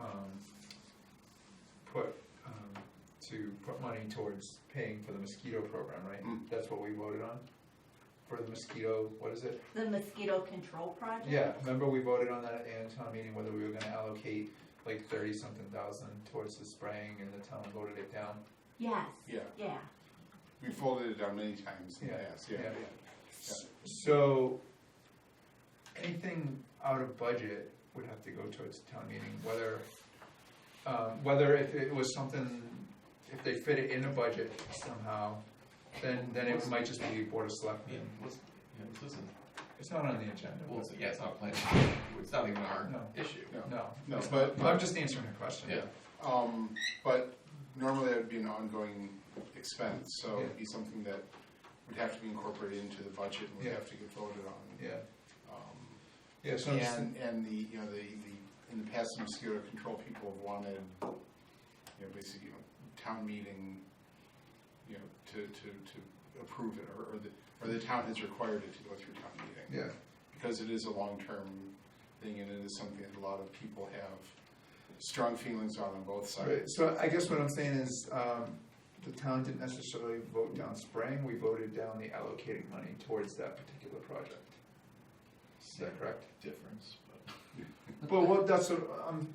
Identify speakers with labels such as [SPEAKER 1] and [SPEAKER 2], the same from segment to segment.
[SPEAKER 1] um, put money towards paying for the mosquito program, right?
[SPEAKER 2] Mm.
[SPEAKER 1] That's what we voted on? For the mosquito, what is it?
[SPEAKER 3] The mosquito control project?
[SPEAKER 1] Yeah, remember we voted on that at town meeting, whether we were gonna allocate like thirty-something thousand towards the spraying, and the town voted it down?
[SPEAKER 3] Yes.
[SPEAKER 2] Yeah.
[SPEAKER 3] Yeah.
[SPEAKER 2] We folded it down many times in the
[SPEAKER 1] Yeah,
[SPEAKER 2] past, yeah.
[SPEAKER 1] yeah. So, anything out of budget would have to go towards town meeting, whether, um, whether if it was something, if they fit it in a budget somehow, then, then it might just be Board of
[SPEAKER 4] Yeah,
[SPEAKER 1] Selectmen.
[SPEAKER 4] let's, yeah, let's listen,
[SPEAKER 1] It's not on the agenda.
[SPEAKER 4] well, it's- yeah, it's not planning, it's not even our
[SPEAKER 1] No.
[SPEAKER 4] issue.
[SPEAKER 1] No.
[SPEAKER 2] No, but,
[SPEAKER 1] I'm
[SPEAKER 2] but,
[SPEAKER 1] just answering her question.
[SPEAKER 4] Yeah,
[SPEAKER 2] um, but normally that would be an ongoing expense, so it'd be something that would have to be incorporated into the budget and would
[SPEAKER 1] Yeah.
[SPEAKER 2] have to get voted on.
[SPEAKER 1] Yeah,
[SPEAKER 2] Um,
[SPEAKER 1] yeah, so I'm just,
[SPEAKER 2] And, and the, you know, the, the, in the past, the mosquito control people have wanted, you know, basically, you know, town meeting, you know, to, to, to approve it, or, or the, or the town has required it to go through town meeting.
[SPEAKER 1] yeah,
[SPEAKER 2] because it is a long-term thing, and it is something that a lot of people have strong feelings on on both
[SPEAKER 1] Right,
[SPEAKER 2] sides.
[SPEAKER 1] so I guess what I'm saying is, um, the town didn't necessarily vote down spraying, we voted down the allocating money towards that particular project. Is that correct?
[SPEAKER 4] difference, but.
[SPEAKER 1] But what, that's, what, um,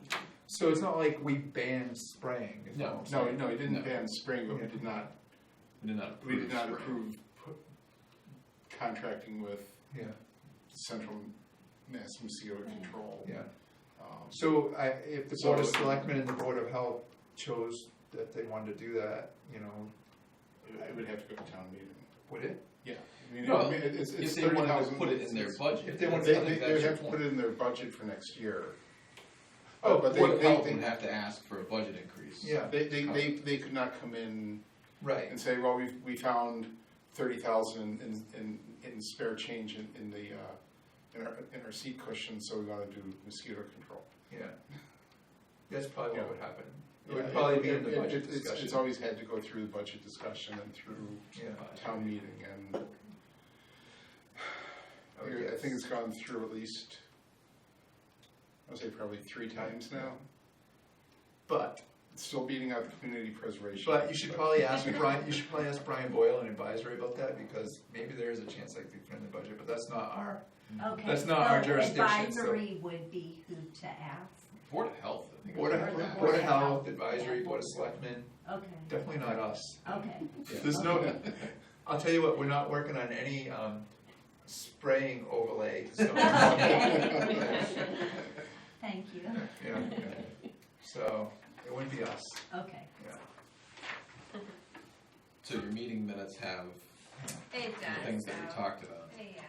[SPEAKER 1] so it's not like we banned spraying, is what I'm
[SPEAKER 2] No,
[SPEAKER 1] saying.
[SPEAKER 2] no, it
[SPEAKER 4] No.
[SPEAKER 2] didn't ban spring, but we
[SPEAKER 1] Yeah.
[SPEAKER 2] did not,
[SPEAKER 4] We did not
[SPEAKER 2] we
[SPEAKER 4] approve.
[SPEAKER 2] did not
[SPEAKER 4] spring.
[SPEAKER 2] approve pu- contracting with
[SPEAKER 1] Yeah,
[SPEAKER 2] Central Mass Mosquito Control.
[SPEAKER 1] yeah,
[SPEAKER 2] Um,
[SPEAKER 1] so I, if the Board of
[SPEAKER 2] So-
[SPEAKER 1] Selectmen and the Board of Health chose that they wanted to do that, you know,
[SPEAKER 2] I would have to go to town meeting.
[SPEAKER 1] would it?
[SPEAKER 2] Yeah. I mean,
[SPEAKER 4] No,
[SPEAKER 2] it- it's,
[SPEAKER 4] If
[SPEAKER 2] it's
[SPEAKER 4] they
[SPEAKER 2] thirty
[SPEAKER 4] wanted to
[SPEAKER 2] thousand.
[SPEAKER 4] put it in their budget.
[SPEAKER 1] if they wanted
[SPEAKER 2] They,
[SPEAKER 1] I
[SPEAKER 2] they, they would have to put it in their budget for next year.
[SPEAKER 1] Oh,
[SPEAKER 2] But they,
[SPEAKER 4] Board of
[SPEAKER 2] they,
[SPEAKER 4] Health would
[SPEAKER 2] they,
[SPEAKER 4] have to ask for a budget increase.
[SPEAKER 1] Yeah,
[SPEAKER 2] they, they, they, they could not come in
[SPEAKER 1] right,
[SPEAKER 2] and say, well, we, we found thirty thousand in, in, in spare change in, in the, uh, in our, in our seat cushion, so we gotta do mosquito control.
[SPEAKER 1] yeah. That's probably
[SPEAKER 2] Yeah.
[SPEAKER 1] what would happen, it would
[SPEAKER 2] Yeah,
[SPEAKER 1] probably be in
[SPEAKER 2] it-
[SPEAKER 1] the
[SPEAKER 2] it-
[SPEAKER 1] budget
[SPEAKER 2] it's-
[SPEAKER 1] discussion,
[SPEAKER 2] It's always had to go through the budget discussion and through
[SPEAKER 1] yeah,
[SPEAKER 2] town meeting, and
[SPEAKER 1] I would
[SPEAKER 2] I
[SPEAKER 1] guess.
[SPEAKER 2] think it's gone through at least, I'd say probably three times now.
[SPEAKER 1] But,
[SPEAKER 2] It's still beating out the community preservation.
[SPEAKER 1] but you should probably ask Brian, you should probably ask Brian Boyle and advisory about that, because maybe there is a chance like they put in the budget, but that's not our,
[SPEAKER 3] Okay.
[SPEAKER 1] Mm-hmm. That's not our
[SPEAKER 3] so
[SPEAKER 1] jurisdiction, so-
[SPEAKER 3] Advisory would be who to ask.
[SPEAKER 4] Board of Health, I think.
[SPEAKER 1] Board
[SPEAKER 4] would have to
[SPEAKER 1] of,
[SPEAKER 4] ask.
[SPEAKER 1] Board of Health, Advisory, Board of Selectmen,
[SPEAKER 3] Okay,
[SPEAKER 1] definitely not us.
[SPEAKER 3] okay.
[SPEAKER 1] There's no, I'll tell you what, we're not working on any, um, spraying overlay, so.
[SPEAKER 3] Okay. Thank you.
[SPEAKER 1] Yeah, so, it wouldn't be us,
[SPEAKER 3] Okay.
[SPEAKER 4] So your meeting minutes have
[SPEAKER 5] It
[SPEAKER 4] the
[SPEAKER 5] does,
[SPEAKER 4] things
[SPEAKER 5] so,
[SPEAKER 4] that we talked about.
[SPEAKER 5] yeah.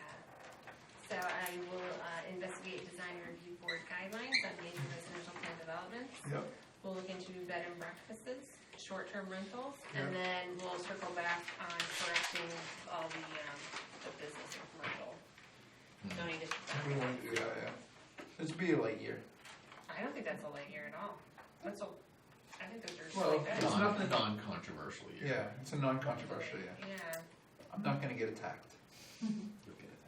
[SPEAKER 5] So I will uh, investigate design review board guidelines on major residential plan developments.
[SPEAKER 1] Yep.
[SPEAKER 5] We'll look into bed and breakfasts, short-term rentals, and then we'll circle back on correcting all the, um, the business and commercial.
[SPEAKER 4] Hmm.
[SPEAKER 5] zoning district
[SPEAKER 1] we
[SPEAKER 5] boundaries.
[SPEAKER 1] wouldn't do that, yeah. This'd be a light year.
[SPEAKER 5] I don't think that's a light year at all. That's a, I think those are
[SPEAKER 1] Well,
[SPEAKER 5] really good.
[SPEAKER 1] it's
[SPEAKER 4] Non,
[SPEAKER 1] nothing-
[SPEAKER 4] non-controversial year.
[SPEAKER 1] Yeah, it's a non-controversial, yeah.
[SPEAKER 5] Yeah.
[SPEAKER 1] I'm not gonna get attacked.
[SPEAKER 4] You'll get it.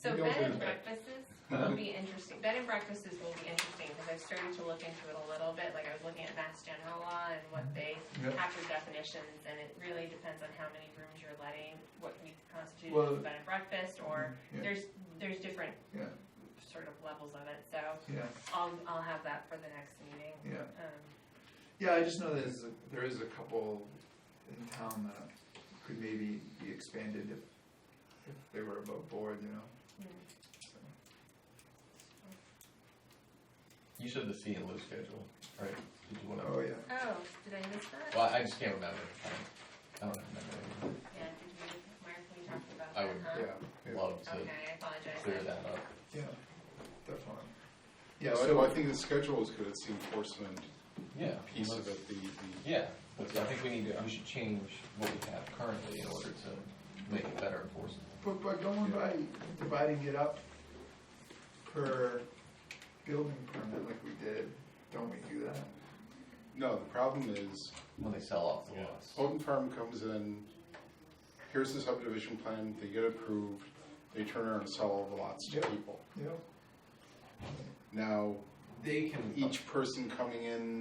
[SPEAKER 5] So
[SPEAKER 1] You don't
[SPEAKER 5] bed
[SPEAKER 1] do
[SPEAKER 5] and
[SPEAKER 1] that.
[SPEAKER 5] breakfasts
[SPEAKER 4] Huh?
[SPEAKER 5] will be interesting, bed and breakfasts will be interesting, because I've started to look into it a little bit, like I was looking at Mass General Law and what they
[SPEAKER 1] Mm-hmm. Yep.
[SPEAKER 5] have for definitions, and it really depends on how many rooms you're letting, what we constitute
[SPEAKER 1] Well- mm-hmm.
[SPEAKER 5] as a bed and breakfast, or
[SPEAKER 1] Yeah,
[SPEAKER 5] there's, there's different
[SPEAKER 1] Yeah.
[SPEAKER 5] sort of levels of it, so
[SPEAKER 1] Yeah,
[SPEAKER 5] I'll, I'll have that for the next meeting.
[SPEAKER 1] yeah.
[SPEAKER 5] Um,
[SPEAKER 1] Yeah, I just know there's, a- there is a couple in town that could maybe be expanded if, if they were above board, you know?
[SPEAKER 4] You said the C and Lou schedule, right? Did you want to?
[SPEAKER 1] Oh, yeah.
[SPEAKER 5] Oh, did I miss that?
[SPEAKER 4] Well, I just can't remember. I don't remember.
[SPEAKER 5] Yeah, did we, Mark, we talked about
[SPEAKER 4] I
[SPEAKER 5] that,
[SPEAKER 4] would-
[SPEAKER 5] huh?
[SPEAKER 2] Yeah, yeah.
[SPEAKER 4] Love to
[SPEAKER 5] Okay, I apologize.
[SPEAKER 4] clear that up.
[SPEAKER 1] Yeah, definitely.
[SPEAKER 2] Yeah,
[SPEAKER 1] Yeah,
[SPEAKER 2] so I
[SPEAKER 1] so,
[SPEAKER 2] think the schedule is good, it's the enforcement
[SPEAKER 4] Yeah.
[SPEAKER 2] piece of
[SPEAKER 4] let's-
[SPEAKER 2] it, the, the,
[SPEAKER 4] Yeah, but I think we need, to- we should change what we have currently in order to make it better enforceable.
[SPEAKER 1] but, but going by dividing it up per building permit like we did, don't we do that?
[SPEAKER 2] no, the problem is,
[SPEAKER 4] When they sell off the lots.
[SPEAKER 2] Holton Farm comes in, here's the subdivision plan, they get approved, they turn around and sell all the lots to
[SPEAKER 1] Yep.
[SPEAKER 2] people.
[SPEAKER 1] Yep.
[SPEAKER 2] Now,
[SPEAKER 4] They can.
[SPEAKER 2] each person coming in